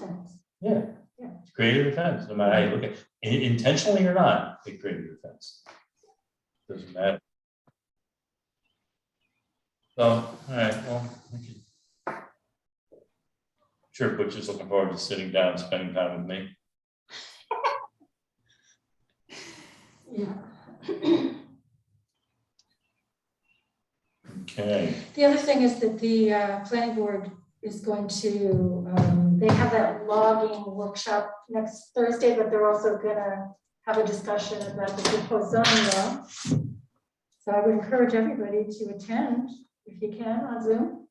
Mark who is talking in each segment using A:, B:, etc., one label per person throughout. A: fence.
B: Yeah.
A: Yeah.
B: It's greater than fence, no matter how you look at, in- intentionally or not, it's greater than fence. Doesn't matter. So, all right, well, we can. Sure, Butch is looking forward to sitting down, and spending time with me.
A: Yeah.
B: Okay,
A: The other thing is that the uh, planning board is going to, um, they have that logging workshop next Thursday, but they're also gonna have a discussion about the proposed zoning law. So I would encourage everybody to attend if you can on Zoom.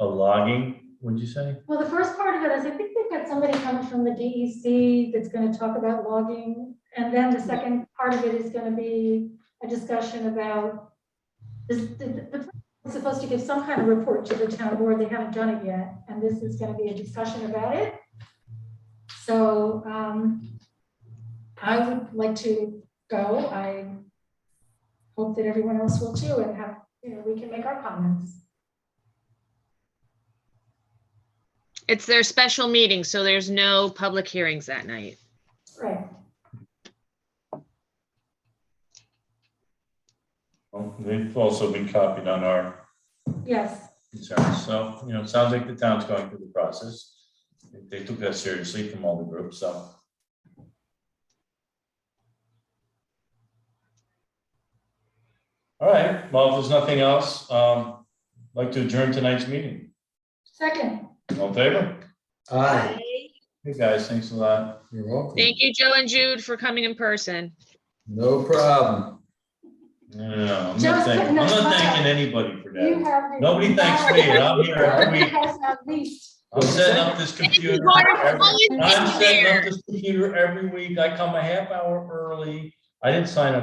B: a logging, would you say?
A: Well, the first part of it is I think they've got somebody coming from the DEC that's gonna talk about logging. And then the second part of it is gonna be a discussion about this, the, the is supposed to give some kind of report to the town board. They haven't done it yet, and this is gonna be a discussion about it. So, um, I would like to go. I hope that everyone else will too and have, you know, we can make our comments.
C: It's their special meeting, so there's no public hearings that night.
A: Right.
B: Well, they've also been copied on our
A: Yes,
B: concerns. So, you know, it sounds like the town's going through the process. They- They took that seriously from all the groups, so. All right, well, if there's nothing else, um, I'd like to adjourn tonight's meeting.
A: second.
B: All in favor?
D: Aye,
B: Hey, guys, thanks a lot.
D: you're welcome.
C: Thank you, Joe and Jude, for coming in person.
D: No problem.
B: Yeah, I'm not
A: Just
B: thanking, I'm
A: putting us
B: not
A: on.
B: thanking anybody for
A: You
B: that.
A: have. the-
B: Nobody thanks me, and I'm here every
A: You
B: week.
A: have not least.
B: I'm setting up this computer. every- I'm setting up this computer every week. I come a half hour early. I didn't sign up